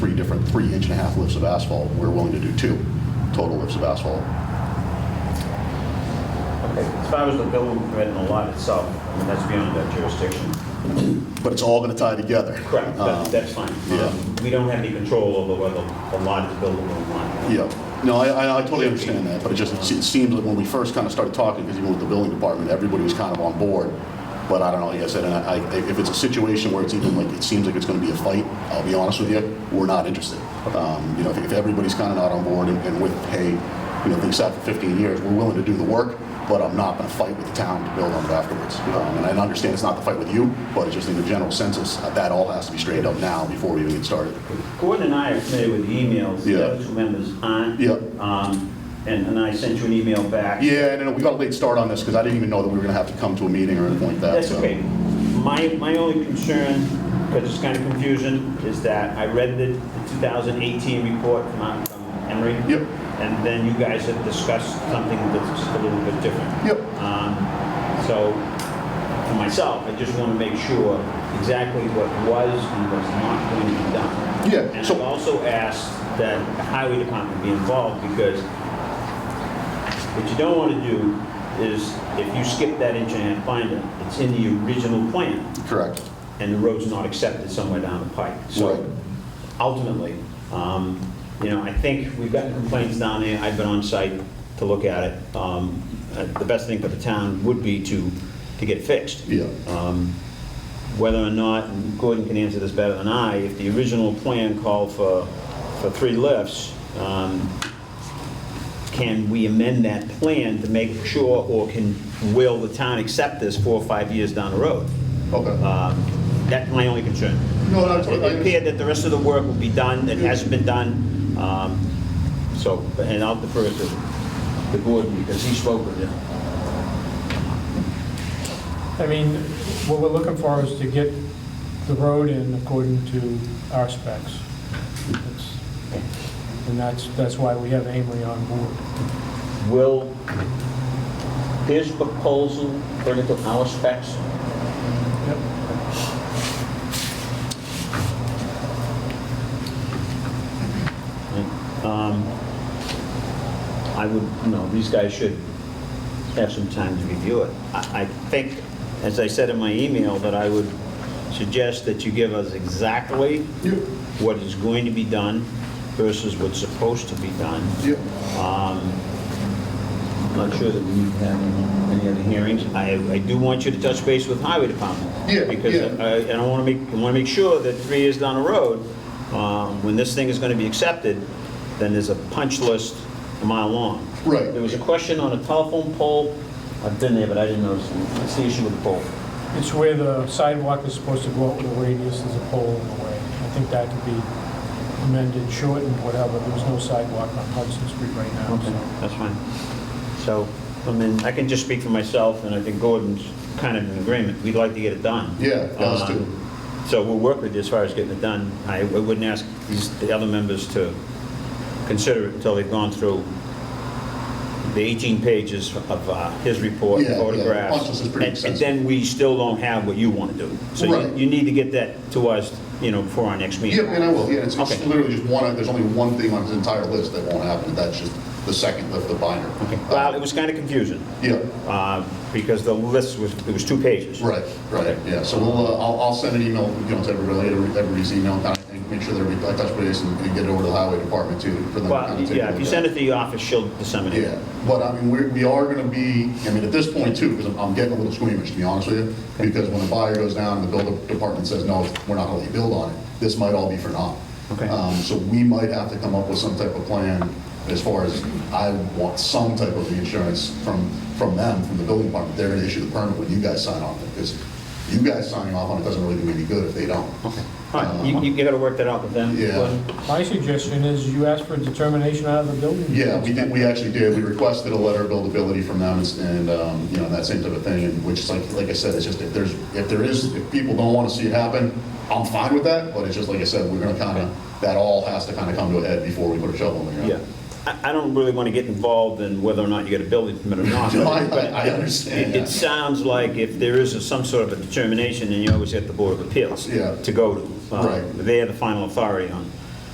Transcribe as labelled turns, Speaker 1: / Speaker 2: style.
Speaker 1: different three inch and a half lifts of asphalt. We're willing to do two total lifts of asphalt.
Speaker 2: As far as the building permit and the lot itself, I mean, that's beyond that jurisdiction.
Speaker 1: But it's all going to tie together.
Speaker 2: Correct,
Speaker 1: Um,
Speaker 2: that- that's fine.
Speaker 1: yeah.
Speaker 2: Um, We don't have any control over whether the lot is buildable or not.
Speaker 1: Yeah, no, I- I, I totally understand that, but it just, it seems like when we first kind of started talking, because even with the building department, everybody was kind of on board. But I don't know, like I said, and I, I- if it's a situation where it's even like, it seems like it's going to be a fight, I'll be honest with you, we're not interested. Um, You know, if- if everybody's kind of not on board and- and with, hey, you know, things sat for 15 years, we're willing to do the work, but I'm not going to fight with the town to build on it afterwards. Um, And I understand it's not the fight with you, but it's just in the general census, uh, that all has to be straightened up now before we even get started.
Speaker 2: Gordon and I are familiar with the emails, the
Speaker 1: Yeah.
Speaker 2: other two members aren't.
Speaker 1: Yeah.
Speaker 2: Um, And and I sent you an email back.
Speaker 1: Yeah, no, no, we got a late start on this because I didn't even know that we were going to have to come to a meeting or anything like that.
Speaker 2: That's
Speaker 1: so-
Speaker 2: okay. My, my only concern, because it's kind of confusion, is that I read the the 2018 report from um, Emery.
Speaker 1: Yep.
Speaker 2: And then you guys had discussed something that's a little bit different.
Speaker 1: Yep.
Speaker 2: Um, So, for myself, I just want to make sure exactly what was and was not going to be done.
Speaker 1: Yeah,
Speaker 2: And
Speaker 1: so-
Speaker 2: I've also asked that the highway department be involved, because what you don't want to do is, if you skip that inch and a half binder, it's in the original plan,
Speaker 1: Correct.
Speaker 2: and the road's not accepted somewhere down the pike.
Speaker 1: Right.
Speaker 2: So ultimately, um, you know, I think we've gotten complaints down there, I've been on site to look at it. Um, uh, The best thing for the town would be to, to get it fixed.
Speaker 1: Yeah.
Speaker 2: Um, Whether or not, and Gordon can answer this better than I, if the original plan called for, for three lifts, um, can we amend that plan to make sure, or can, will the town accept this four or five years down the road?
Speaker 1: Okay.
Speaker 2: Um, That's my only concern.
Speaker 1: No, no, it's-
Speaker 2: It appeared that the rest of the work will be done, that hasn't been done, um, so, and I'll defer to the board because he spoke with him.
Speaker 3: I mean, what we're looking for is to get the road in according to our specs. It's- And that's, that's why we have Amory on board.
Speaker 2: Will his proposal bring it to our specs?
Speaker 3: Yep.
Speaker 2: Um, I would, you know, these guys should have some time to review it. I I think, as I said in my email, that I would suggest that you give us exactly
Speaker 1: Yep.
Speaker 2: what is going to be done versus what's supposed to be done.
Speaker 1: Yep.
Speaker 2: I'm not sure that we need to have any- any other hearings. I, I do want you to touch base with Highway Department.
Speaker 1: Yeah,
Speaker 2: Because
Speaker 1: yeah.
Speaker 2: I, and I want to make, I want to make sure that three years down the road, um, when this thing is going to be accepted, then there's a punch list a mile long.
Speaker 1: Right.
Speaker 2: There was a question on a telephone pole. I've been there, but I didn't notice. it. What's the issue with the pole?
Speaker 3: It's where the sidewalk is supposed to go out with a radius, there's a pole in the way. I think that could be amended, shortened, whatever. There's no sidewalk on Hudson Street right now,
Speaker 2: Okay,
Speaker 3: so.
Speaker 2: that's fine. So, I mean, I can just speak for myself, and I think Gordon's kind of in agreement. We'd like to get it done.
Speaker 1: Yeah, us too.
Speaker 2: Um, So we'll work with you as far as getting it done. I I wouldn't ask these, the other members to consider it until they've gone through the 18 pages of uh, his report,
Speaker 1: Yeah, yeah.
Speaker 2: photographs.
Speaker 1: Bunch of this is pretty
Speaker 2: and-
Speaker 1: extensive.
Speaker 2: And then we still don't have what you want to do. So you-
Speaker 1: Right.
Speaker 2: you need to get that to us, you know, before our next meeting.
Speaker 1: Yeah, and I will, yeah, it's it's
Speaker 2: Okay.
Speaker 1: literally just one, there's only one thing on his entire list that won't happen, and that's just the second lift of binder. Uh,
Speaker 2: Okay. Well, it was kind of confusing.
Speaker 1: Yeah,
Speaker 2: uh, because the list was, it was two pages.
Speaker 1: right, right, yeah, so we'll, uh, I'll, I'll send an email, you know, to everybody, every- everybody's email, kind of, and make sure that we, I touch base and and get it over to the highway department too, for them to
Speaker 2: Well,
Speaker 1: kind of take a
Speaker 2: yeah, if you
Speaker 1: look at
Speaker 2: send it to the office, she'll disseminate
Speaker 1: Yeah,
Speaker 2: it.
Speaker 1: but I mean, we're, we are gonna be, I mean, at this point too, because I'm, I'm getting a little squeamish, to be honest with you, because when a buyer goes down and the builder department says, no, we're not gonna let you build on it, this might all be for naught.
Speaker 2: Okay.
Speaker 1: Um, so we might have to come up with some type of plan as far as, I want some type of reinsurance from, from them, from the building department, they're gonna issue the permit when you guys sign off, because you guys signing off on it doesn't really do any good if they don't. Uh,
Speaker 2: All right, you, you gotta work that out with them.
Speaker 1: Yeah.
Speaker 2: Gordon.
Speaker 3: My suggestion is you ask for a determination out of the building.
Speaker 1: Yeah, we did, we actually did, we requested a letter of buildability from them, and, um, you know, that same type of thing, and which is like, like I said, it's just, if there's, if there is, if people don't wanna see it happen, I'm fine with that, but it's just, like I said, we're gonna kinda, that all has to kinda come to a head before we put a shovel in the
Speaker 2: Yeah.
Speaker 1: ground.
Speaker 2: I, I don't really wanna get involved in whether or not you get a building permit or not.
Speaker 1: No, I-
Speaker 2: but
Speaker 1: I understand
Speaker 2: it- It
Speaker 1: that.
Speaker 2: sounds like if there is a- some sort of a determination, then you always get the Board of Appeals.
Speaker 1: Yeah.
Speaker 2: To go to. Uh,
Speaker 1: Right.
Speaker 2: They are the final authority on